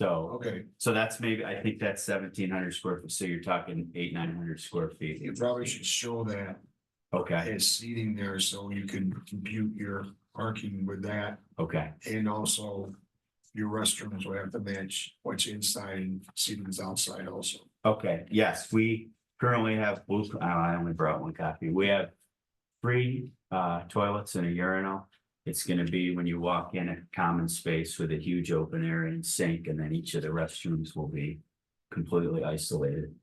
So, Okay, so that's maybe, I think that's seventeen hundred square foot, so you're talking eight, nine hundred square feet. you probably should show that Okay, as seating there so you can compute your parking with that. okay, And also your restrooms will have to match what's inside and seating's outside also. okay, yes, we currently have blue, oh, I only brought one copy, we have. Three uh toilets and a urinal, it's gonna be when you walk in a common space with a huge open area and sink, and then each of the restrooms will be. Completely isolated,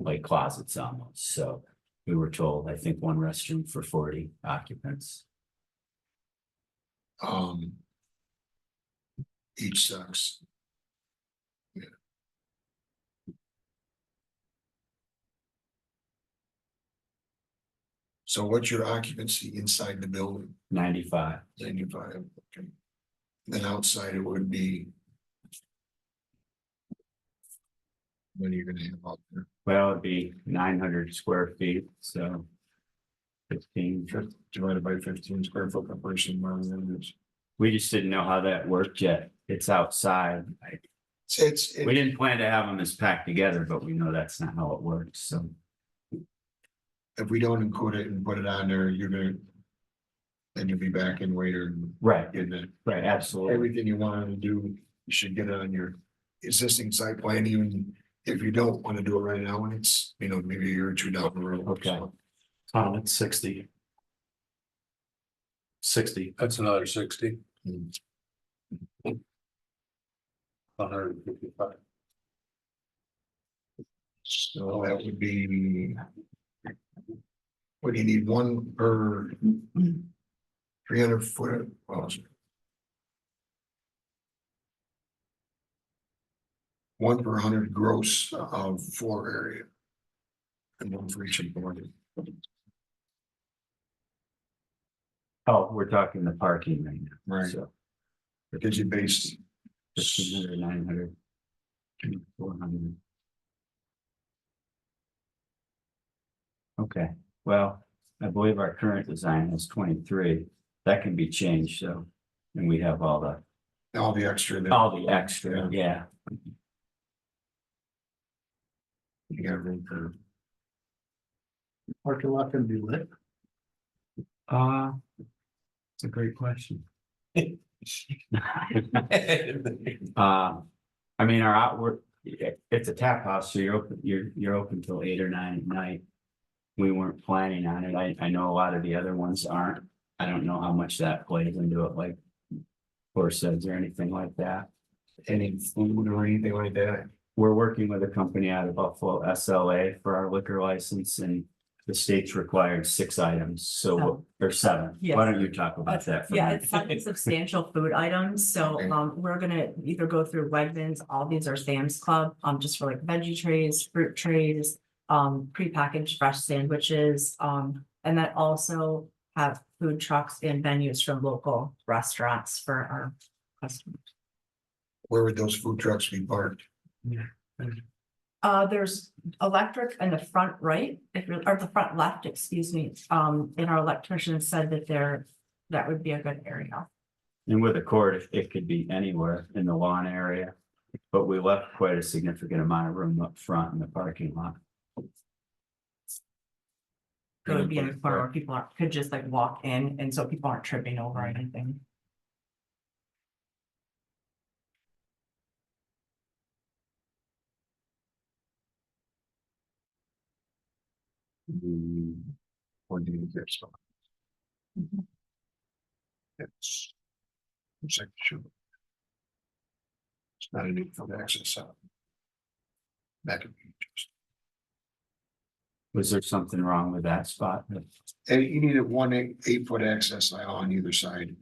like closets almost, so we were told, I think one restroom for forty occupants. Um. Each sucks. Yeah. So what's your occupancy inside the building? Ninety-five, Ninety-five, okay. Then outside it would be. What are you gonna have out there? well, it'd be nine hundred square feet, so. Fifteen, Fif- Divided by fifteen square foot per person, miles in it. we just didn't know how that worked yet, it's outside, I- It's- It's, We it- didn't plan to have them as packed together, but we know that's not how it works, so. if we don't include it and put it on there, you're gonna. Then you'll be back in later and Right, getting it. right, absolutely. everything you want to do, you should get it on your existing site plan, even if you don't want to do it right now, and it's, you know, maybe a year or two down the road. Okay. Um, it's sixty. Sixty. That's another sixty. Hmm. One hundred and fifty-five. So that would be. What do you need, one per three hundred foot, well. it's- One per hundred gross of floor area. And one for each employee. Oh, we're talking the parking right now, so. Because you based. Fifteen hundred, nine hundred. Four hundred. Okay, well, I believe our current design is twenty-three. That can be changed, so. And we have all the, all the extra. that- all the extra, yeah. You got room for, Parking lot can be lit. Uh. It's a great question. Uh, I mean, our outward, it- it's a tap house, so you're open, you're, you're open till eight or nine at night. We weren't planning on it. I, I know a lot of the other ones aren't. I don't know how much that plays into it, like. Or says or anything like that. any food or anything like that. We're working with a company out of Buffalo, SLA, for our liquor license and. The state's required six items, so, or seven. Why don't you talk about that? for a Oh. Yeah, minute? it's not substantial food items, so Okay. um we're gonna either go through Wegmans, all these are Sam's Club, um just for like veggie trays, fruit trays. Um prepackaged fresh sandwiches, um and then also have food trucks and venues from local restaurants for our customers. Where would those food trucks be parked? Uh, there's electric in the front right, if you're, or the front left, excuse me, um and our electrician said that there, that would be a good area. And with a court, it- it could be anywhere in the lawn area, but we left quite a significant amount of room up front in the parking lot. It would be in a corner where people aren't- could just like walk in, and so people aren't tripping over anything. Hmm, Or do you get some? Mhm. It's. It's like, sure. It's not a need for the access out. That could be just, Was there something wrong with that spot? and you need a one eight, eight foot access aisle on either side.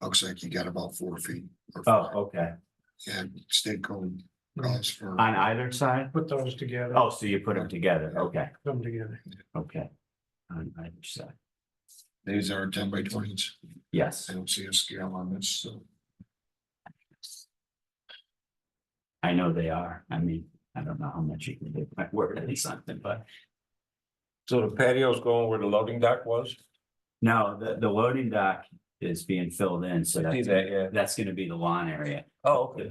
Looks like you got about four feet. or Oh, five. okay. And state code calls for. On either side? Put those together, Oh, so you put them together. Okay, them together. okay. On either side. These are ten by twenties. Yes, I don't see a scale on this, so. I know they are. I mean, I don't know how much you can do. My word or something, but So the patio's going where the loading dock was? no, the, the loading dock is being filled in, so See that's, that, yeah. that's gonna be the lawn area. Oh, okay.